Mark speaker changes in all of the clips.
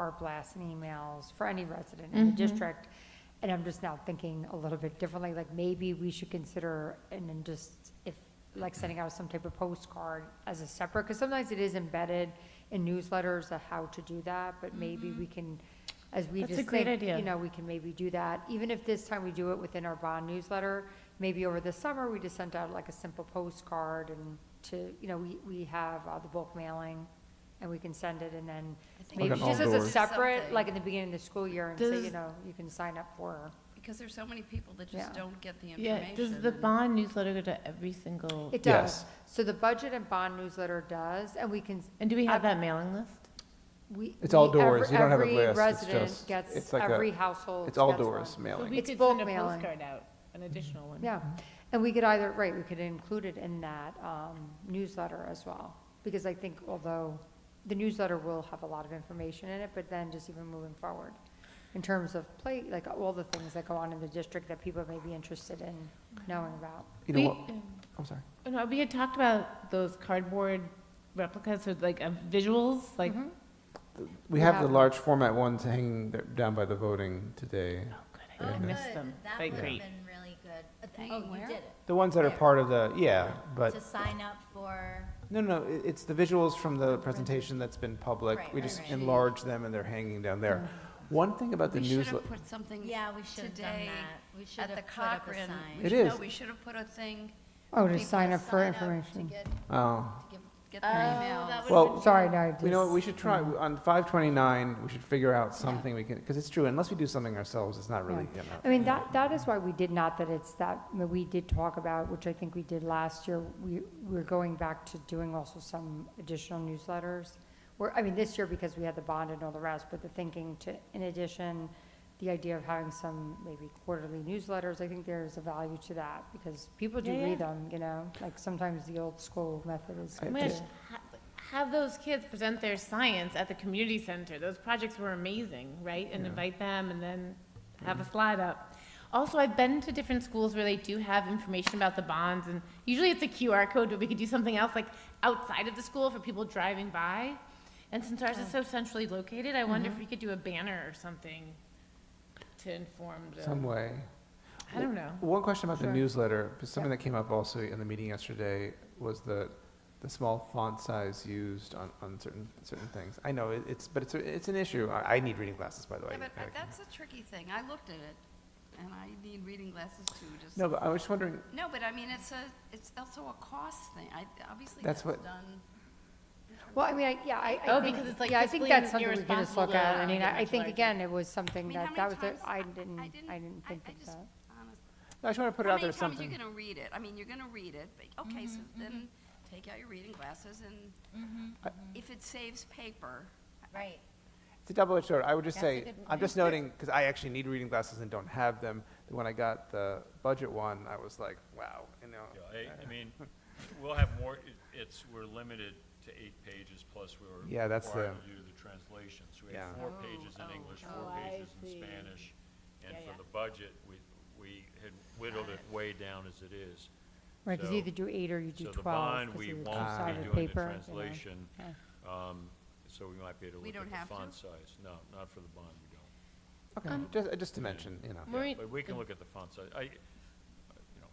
Speaker 1: our blasts and emails for any resident
Speaker 2: Mm-hmm.
Speaker 1: in the district. And I'm just now thinking a little bit differently, like maybe we should consider, and then just if, like sending out some type of postcard as a separate, because sometimes it is embedded in newsletters of how to do that, but maybe we can, as we
Speaker 2: Mm-hmm. That's a
Speaker 1: just
Speaker 2: great
Speaker 1: think,
Speaker 2: idea.
Speaker 1: you know, we can maybe do that. Even if this time we do it within our bond newsletter, maybe over the summer, we just sent out like a simple postcard and to, you know, we, we have uh, the bulk mailing and we can send it and then
Speaker 3: Like
Speaker 1: maybe
Speaker 3: an
Speaker 1: just as a
Speaker 3: outdoor.
Speaker 1: separate,
Speaker 4: Something.
Speaker 1: like in the beginning of the school year and say, you
Speaker 2: Does-
Speaker 1: know, you can sign up for.
Speaker 4: Because there's so many people that
Speaker 1: Yeah.
Speaker 4: just don't get the information.
Speaker 2: Yeah, does the
Speaker 4: and-
Speaker 2: bond newsletter go to every single,
Speaker 1: It
Speaker 3: Yes.
Speaker 1: does. So the budget and bond newsletter does, and we can,
Speaker 2: and do we have that mailing list?
Speaker 1: we.
Speaker 3: It's
Speaker 1: we-
Speaker 3: outdoors.
Speaker 1: every-
Speaker 3: You don't have a
Speaker 1: every
Speaker 3: list. It's
Speaker 1: resident
Speaker 3: just-
Speaker 1: gets-
Speaker 3: it's like a-
Speaker 1: Every household.
Speaker 3: It's
Speaker 1: gets
Speaker 3: all
Speaker 1: one.
Speaker 3: doors
Speaker 2: So
Speaker 3: mailing.
Speaker 2: we
Speaker 1: It's
Speaker 2: could
Speaker 1: bulk
Speaker 2: send a
Speaker 1: mailing.
Speaker 2: postcard out, an additional one.
Speaker 1: Yeah, and we could either, right, we could include it in that um, newsletter as well, because I think although the newsletter will have a lot of information in it, but then just even moving forward, in terms of play, like all the things that go on in the district that people may be interested in knowing about.
Speaker 3: You know
Speaker 2: We-
Speaker 3: what? I'm sorry.
Speaker 2: Oh, No, we had talked about those cardboard replicas with like uh, visuals, like,
Speaker 1: Mhm.
Speaker 3: We
Speaker 1: We
Speaker 3: have
Speaker 1: have
Speaker 3: the
Speaker 1: them.
Speaker 3: large format ones hanging there- down by the voting today.
Speaker 2: oh, good,
Speaker 3: Yeah.
Speaker 2: I missed
Speaker 5: Good.
Speaker 2: them.
Speaker 5: That
Speaker 2: They're
Speaker 5: would have
Speaker 2: great.
Speaker 5: been really good. Uh, th-
Speaker 4: Hanging
Speaker 5: Oh, you
Speaker 4: where?
Speaker 5: did it.
Speaker 3: The ones that are part of the, yeah, but,
Speaker 5: To sign up for,
Speaker 3: no, no, it- it's the visuals from the presentation that's been public.
Speaker 5: Right,
Speaker 3: We
Speaker 5: right,
Speaker 3: just
Speaker 5: right.
Speaker 3: enlarge them and they're hanging down there. Mm-hmm. One thing about the
Speaker 4: We should have
Speaker 3: newsletter,
Speaker 4: put something.
Speaker 5: yeah, we should have done
Speaker 4: today
Speaker 5: that. We should
Speaker 4: At
Speaker 5: have
Speaker 4: the
Speaker 5: put up a
Speaker 4: Cochrane. Oh,
Speaker 5: sign.
Speaker 4: We
Speaker 3: It
Speaker 4: should- no,
Speaker 3: is.
Speaker 4: We should have put a thing.
Speaker 1: Oh, to
Speaker 4: people
Speaker 1: sign up for
Speaker 4: sign up to
Speaker 1: information.
Speaker 4: get-
Speaker 3: oh,
Speaker 4: to get- Get their emails.
Speaker 3: well,
Speaker 1: Sorry, no, I just.
Speaker 3: You know what, we should try, on 529, we should figure out something we can, because it's true, unless we do something ourselves, it's not really, you
Speaker 1: I
Speaker 3: know.
Speaker 1: mean, that, that is why we did not, that it's that, I mean, we did talk about, which I think we did last year, we, we're going back to doing also some additional newsletters. Where, I mean, this year because we had the bond and all the rest, but the thinking to, in addition, the idea of having some maybe quarterly newsletters, I think there's a value to that because people do
Speaker 2: Yeah,
Speaker 1: read
Speaker 2: yeah.
Speaker 1: them, you know? Like sometimes the old school method is.
Speaker 2: Oh my gosh, ha- Have those kids present their science at the community center. Those projects were amazing, right? And invite them and then have a slide up. Also, I've been to different schools where they do have information about the bonds and usually it's a QR code, but we could do something else like outside of the school for people driving by. And since ours is so centrally located, I wonder if we could do a banner or something to inform
Speaker 3: Some
Speaker 2: the,
Speaker 3: way.
Speaker 2: I don't know.
Speaker 3: One question about the
Speaker 1: Sure.
Speaker 3: newsletter, because something that came up also in the meeting yesterday was the, the small font size used on, on certain, certain things. I know, it- it's, but it's, a- it's an issue. I, I need reading glasses, by the way.
Speaker 4: Yeah, but
Speaker 3: I-
Speaker 4: but that's a tricky thing. I looked at it and I need reading glasses too, just.
Speaker 3: No, but I was just wondering,
Speaker 4: No, but I mean, it's a, it's also a cost thing. I, obviously
Speaker 3: That's
Speaker 4: that's
Speaker 3: what-
Speaker 4: done.
Speaker 1: Well, I mean, I, yeah, I, I
Speaker 2: Oh,
Speaker 1: think-
Speaker 2: because it's, like,
Speaker 1: yeah, I think
Speaker 2: fiscally
Speaker 1: that's something we could just
Speaker 2: irresponsible
Speaker 1: look at.
Speaker 2: to
Speaker 1: I mean,
Speaker 2: make it
Speaker 1: I, I
Speaker 2: much
Speaker 1: think
Speaker 2: larger.
Speaker 1: again, it was
Speaker 4: I
Speaker 1: something
Speaker 4: mean,
Speaker 1: that,
Speaker 4: how
Speaker 1: that
Speaker 4: many
Speaker 1: was, the-
Speaker 4: times-
Speaker 1: I didn't, I didn't
Speaker 4: I-
Speaker 1: think
Speaker 4: I
Speaker 1: of
Speaker 4: just-
Speaker 1: that.
Speaker 4: honest-
Speaker 3: I just want to put it
Speaker 4: How
Speaker 3: out
Speaker 4: many
Speaker 3: there as
Speaker 4: times
Speaker 3: something.
Speaker 4: you gonna read it? I mean, you're gonna read it, but, okay, so then take out your reading glasses and if it saves paper,
Speaker 5: right.
Speaker 3: It's a double-edged sword. I would just
Speaker 5: That's a
Speaker 3: say,
Speaker 5: good
Speaker 3: I'm just noting, because I actually need reading glasses and don't have them. that When I got the budget one, I was like, wow, you know.
Speaker 6: Yeah, I, I mean, we'll have more, it- it's, we're limited to eight pages, plus we were
Speaker 3: Yeah, that's
Speaker 6: required
Speaker 3: the-
Speaker 6: to do the translation. So we
Speaker 3: Yeah.
Speaker 6: had four
Speaker 4: Oh,
Speaker 6: pages in
Speaker 4: oh,
Speaker 6: English,
Speaker 2: oh,
Speaker 6: four
Speaker 2: I
Speaker 6: pages in
Speaker 2: see.
Speaker 6: Spanish, and
Speaker 2: Yeah, yeah.
Speaker 6: for the budget, we, we had whittled it way down as it is.
Speaker 1: Right, because
Speaker 6: So-
Speaker 1: you either do eight or you do
Speaker 6: So the
Speaker 1: 12.
Speaker 6: bond,
Speaker 1: because
Speaker 6: we
Speaker 1: you
Speaker 6: won't
Speaker 1: decide
Speaker 6: be
Speaker 1: with
Speaker 6: doing the
Speaker 1: paper, you know.
Speaker 6: translation,
Speaker 1: Yeah.
Speaker 6: um, so we might be able to
Speaker 4: We
Speaker 6: look
Speaker 4: don't
Speaker 6: at
Speaker 4: have
Speaker 6: the
Speaker 4: to?
Speaker 6: font size. No, not for the bond, we don't.
Speaker 3: Okay, just, uh, just to mention, you know.
Speaker 6: Yeah,
Speaker 2: Maureen-
Speaker 6: But we can look at the font size. I, you know,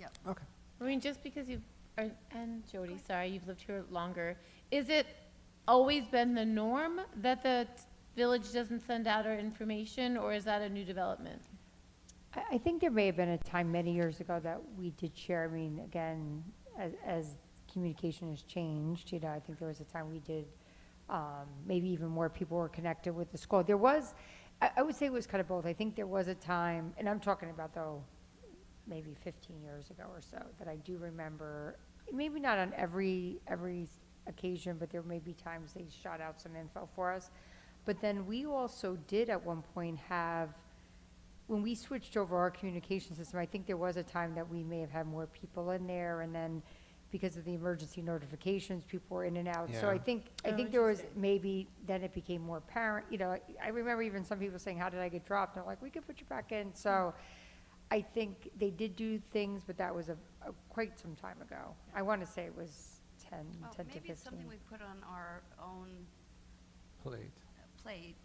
Speaker 4: yep.
Speaker 3: Okay.
Speaker 2: I mean, just because you, are and Jody, sorry, you've lived here longer, is it always been the norm that the t- village doesn't send out our information, or is that a new development?
Speaker 1: I, I think there may have been a time many years ago that we did share, I mean, again, as, as communication has changed, you know, I think there was a time we did, um, maybe even more people were connected with the school. There was, I, I would say it was kind of both. I think there was a time, and I'm talking about though, maybe 15 years ago or so, that I do remember, maybe not on every, every occasion, but there may be times they shot out some info for us. But then we also did at one point have, when we switched over our communication system, I think there was a time that we may have had more people in there, and then because of the emergency notifications, people were in and out. So I
Speaker 3: Yeah.
Speaker 1: think, I
Speaker 2: Oh,
Speaker 1: think there was maybe, then it became more apparent, you know, I remember even some people saying, how did I get dropped? And I'm like, we could put you back in, so I think they did do things, but that was a, a- quite some time ago. I want to say it was 10,
Speaker 4: Well,
Speaker 1: 10 to
Speaker 4: maybe it's
Speaker 1: 15.
Speaker 4: something we put on our own
Speaker 3: Plate.
Speaker 4: plate